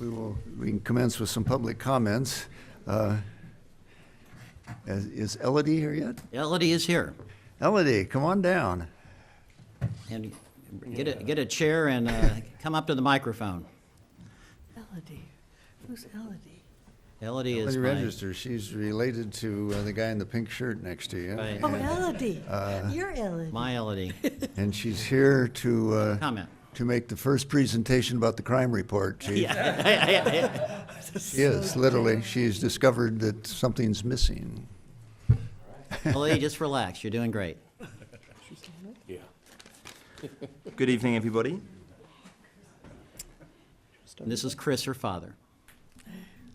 We will, we can commence with some public comments. Uh, Is is Elodie here yet? Elodie is here. Elodie, come on down. And get a, get a chair and uh, come up to the microphone. Elodie. Who's Elodie? Elodie is Elodie my, Register, she's related to uh, the guy in the pink shirt next to you. Right. Oh, and- Elodie. Uh, You're Elodie. my Elodie. And she's here to, uh, Comment. to make the first presentation about the crime report, Chief. Yeah. She is, literally. She's discovered that something's missing. Elodie, just relax. You're doing great. Good evening, everybody. And this is Chris, her father.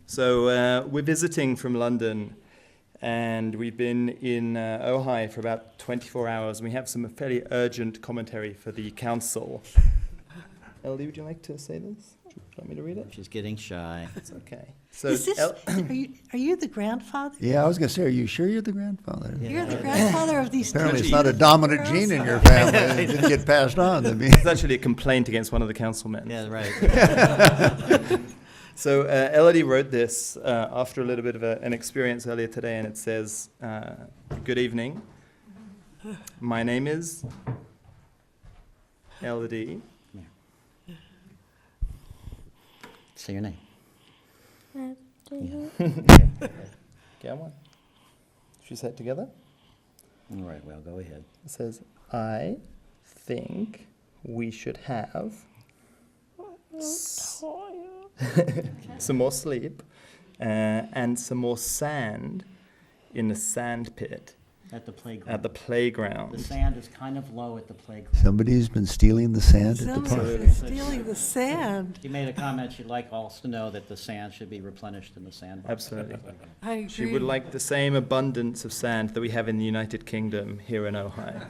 So uh, we're visiting from London, and we've been in uh, Ojai for about 24 hours. and We have some fairly urgent commentary for the council. Ellie, would you like to say this? Do you want me to read it? She's getting shy. It's okay. So Is this, El- are you, are you the grandfather? Yeah, I was gonna say, are you sure you're the grandfather? You're the grandfather of these two Apparently, it's not a beautiful dominant girls? gene in your family. It didn't get passed on to me. it's actually a complaint against one of the councilmen. Yeah, right. So uh, Elodie wrote this uh, after a little bit of a, an experience earlier today, and it says, uh, "Good evening. My name is Elodie. Say your name. Get one. She said together. All right, well, go ahead. It says, "I think we should have s- some more sleep uh, and some more sand in the sand pit At the at playground. the playground." The sand is kind of low at the playground. Somebody's been stealing the sand at the park. Someone's been stealing the sand. She made a comment she'd like all to know that the sand should be replenished in the sandbox. Absolutely. I agree. She would like the same abundance of sand that we have in the United Kingdom here in Ohio.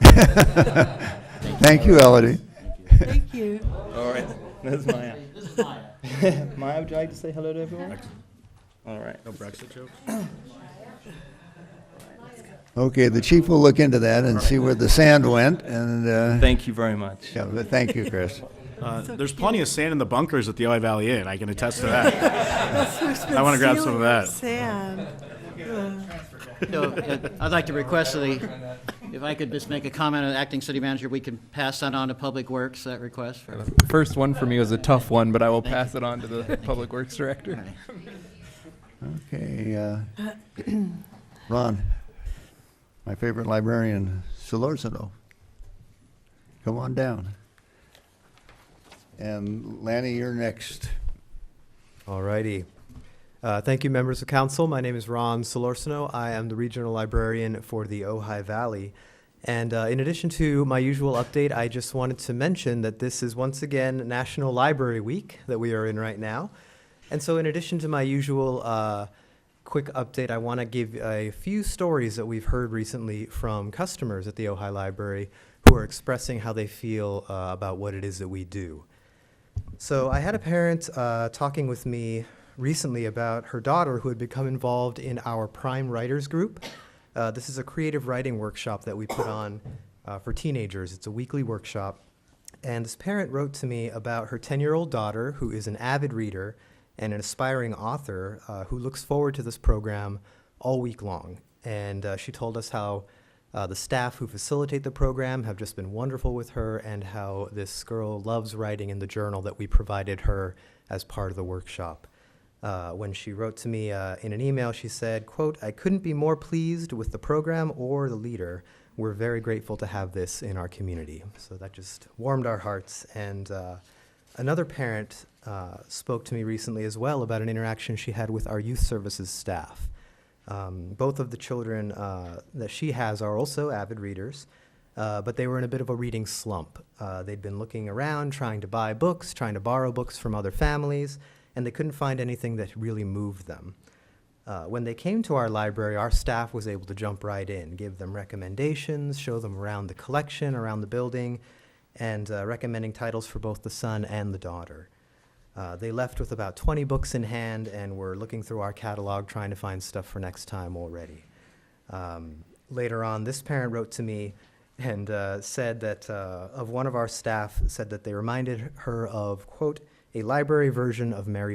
Thank you, Elodie. Thank you. All right, there's Maya. This is Maya. Maya, would you like to say hello to everyone? All right. No Brexit jokes? Okay, the chief will look into that and see where the sand went, and, uh, Thank you very much. yeah, but thank you, Chris. Uh, there's plenty of sand in the bunkers at the Ojai Valley Inn. I can attest to that. I wanna grab some of that. Sand. So, uh, I'd like to request that he- if I could just make a comment, uh, acting city manager, we can pass that on to Public Works, that request for The first one for me was a tough one, but I will pass it on to the Public Works Director. Okay, uh, Ron, my favorite librarian, Solorzano. Come on down. And Lanny, you're next. Alrighty. Uh, thank you, members of council. My name is Ron Solorsino. I am the regional librarian for the Ojai Valley. And uh, in addition to my usual update, I just wanted to mention that this is once again National Library Week that we are in right now. And so, in addition to my usual uh, quick update, I want to give a few stories that we've heard recently from customers at the Ojai Library who are expressing how they feel uh, about what it is that we do. So I had a parent uh, talking with me recently about her daughter who had become involved in our Prime Writers Group. Uh, this is a creative writing workshop that we put on uh, for teenagers. It's a weekly workshop. And this parent wrote to me about her 10 year old daughter, who is an avid reader and an aspiring author, uh, who looks forward to this program all week long. And uh, she told us how uh, the staff who facilitate the program have just been wonderful with her, and how this girl loves writing in the journal that we provided her as part of the workshop. Uh, when she wrote to me uh, in an email, she said, "quote I couldn't be more pleased with the program or the leader. We're very grateful to have this in our community." So that just warmed our hearts. And uh, another parent uh, spoke to me recently as well about an interaction she had with our youth services staff. Um, both of the children uh, that she has are also avid readers, uh, but they were in a bit of a reading slump. Uh, they'd been looking around, trying to buy books, trying to borrow books from other families, and they couldn't find anything that really moved them. Uh, when they came to our library, our staff was able to jump right in, give them recommendations, show them around the collection, around the building, and uh, recommending titles for both the son and the daughter. Uh, they left with about 20 books in hand and were looking through our catalog trying to find stuff for next time already. Um, later on, this parent wrote to me and uh, said that uh, of one of our staff said that they reminded her of quote a library version of Mary